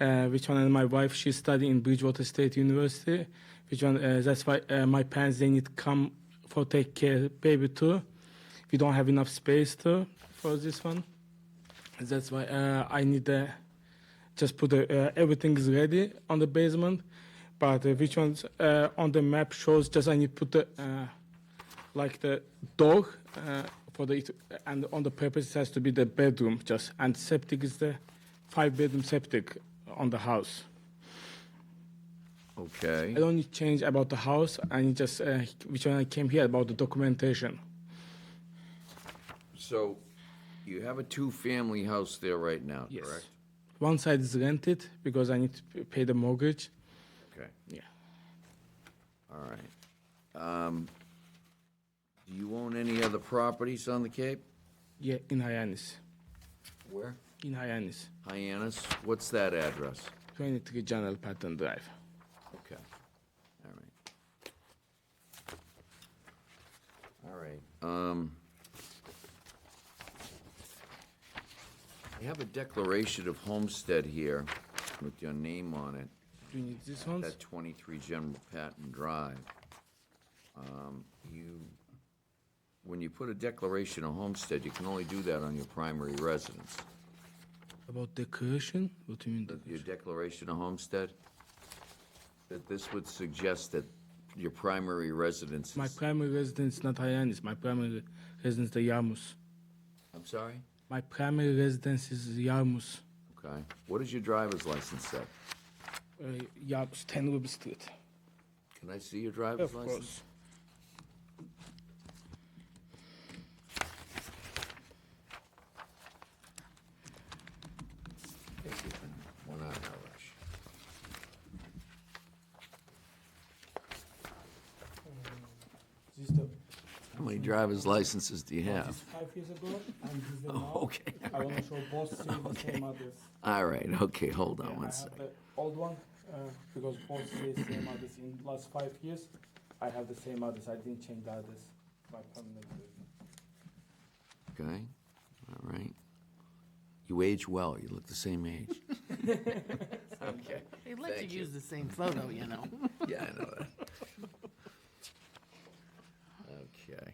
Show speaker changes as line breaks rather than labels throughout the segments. uh, which one and my wife she's studying in Bridgewater State University which one uh, that's why uh, my parents they need come for take care baby too we don't have enough space too for this one that's why uh, I need uh, just put the, uh, everything is ready on the basement but uh, which ones uh, on the map shows just I need put the uh, like the door uh, for the it- and on the purpose it has to be the bedroom just and septic is the five bedroom septic on the house.
Okay.
I don't need change about the house and just uh, which one I came here about the documentation.
So you have a two-family house there right now,
Yes.
correct?
One side is rented because I need to p- pay the mortgage.
Okay,
Yeah.
all right. Um, Do you own any other properties on the Cape?
Yeah, in Hyannis.
Where?
In Hyannis.
Hyannis, what's that address?
23 General Patton Drive.
Okay, all right. All right, um. You have a declaration of homestead here with your name on it.
Do you need this one?
That 23 General Patton Drive. Um, You, when you put a declaration of homestead, you can only do that on your primary residence.
About decoration? What do you mean? decoration?
Your declaration of homestead, that this would suggest that your primary residence
My
is,
primary residence not Hyannis. My primary residence the Yarmouth.
I'm sorry?
My primary residence is Yarmouth.
Okay. What does your driver's license say?
Uh, Yarmouth, 10 Ruby Street.
Can I see your driver's
Of
license?
course.
Yes, you can. We're not in a rush.
This is the,
How many driver's licenses do you have?
five years ago, and this is the now.
Oh. Okay,
I want to show both still the same address.
all right, okay, hold on
I
one
have
second.
the old one uh, because both say same address. In the last five years, I have the same address. I didn't change the address. My permanent residence.
Okay, all right. You age well, you look the same age. Okay,
They would like to
Thank you.
use the same photo, you know.
yeah, I know that. Okay,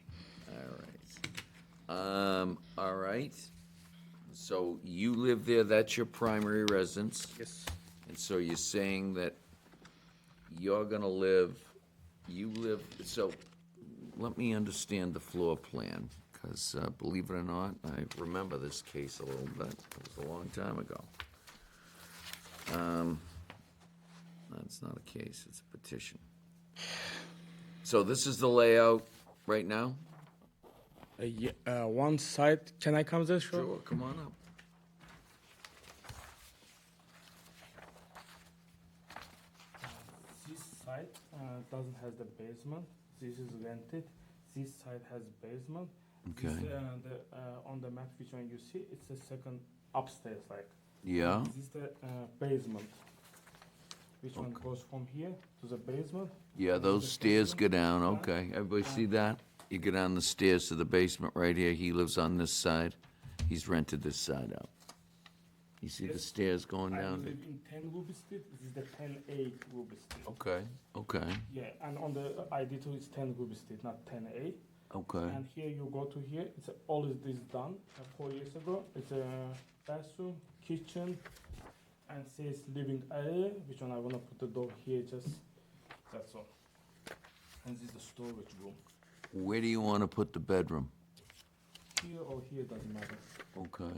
all right. Um, all right, so you live there, that's your primary residence?
Yes.
And so you're saying that you're gonna live, you live, so let me understand the floor plan, because believe it or not, I remember this case a little bit. It was a long time ago. Um, That's not a case, it's a petition. So this is the layout right now?
Uh, yeah, uh, one side. Can I come there? Sure.
Come on up.
This side uh, doesn't has the basement. This is rented. This side has basement. This,
Okay.
uh, the, uh, on the map which one you see, it's the second upstairs like.
Yeah,
This is the uh, basement. Which one goes from here to the basement?
yeah, those stairs go down, okay. Everybody see that? You go down the stairs to the basement right here. He lives on this side. He's rented this side out. You see the stairs going
I
down?
live in 10 Ruby Street. This is the 10A Ruby Street.
Okay, okay,
Yeah, and on the ID too, it's 10 Ruby Street, not 10A.
okay.
And here you go to here. It's all is this done uh, four years ago. It's a bathroom, kitchen, and says living area. Which one I wanna put the door here? Just that's all. And this is the storage room.
Where do you want to put the bedroom?
Here or here doesn't matter.
Okay,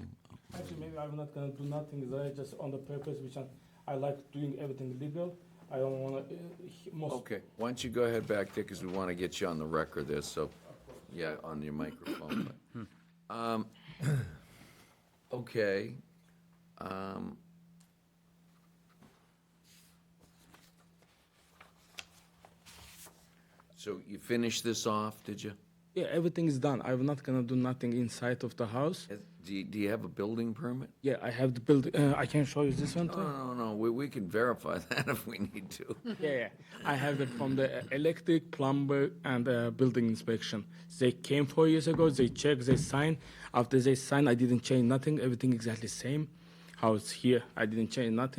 Actually, maybe I'm not gonna do nothing there. Just on the purpose, which I, I like doing everything legal. I don't wanna uh, he- most.
okay. Why don't you go ahead back there, because we want to get you on the record there, so, yeah, on your microphone. but- Um, Okay. um, So you finished this off, did you?
Yeah, everything is done. I'm not gonna do nothing inside of the house.
Yes. Do you, do you have a building permit?
Yeah, I have the build. Uh, I can show you this one.
No,
too.
no, no, we, we can verify that if we need to.
Oh. Yeah, yeah. I have it from the uh, electric, plumber, and uh, building inspection. They came four years ago. They checked. They signed. After they signed, I didn't change nothing. Everything exactly same. How it's here, I didn't change nothing.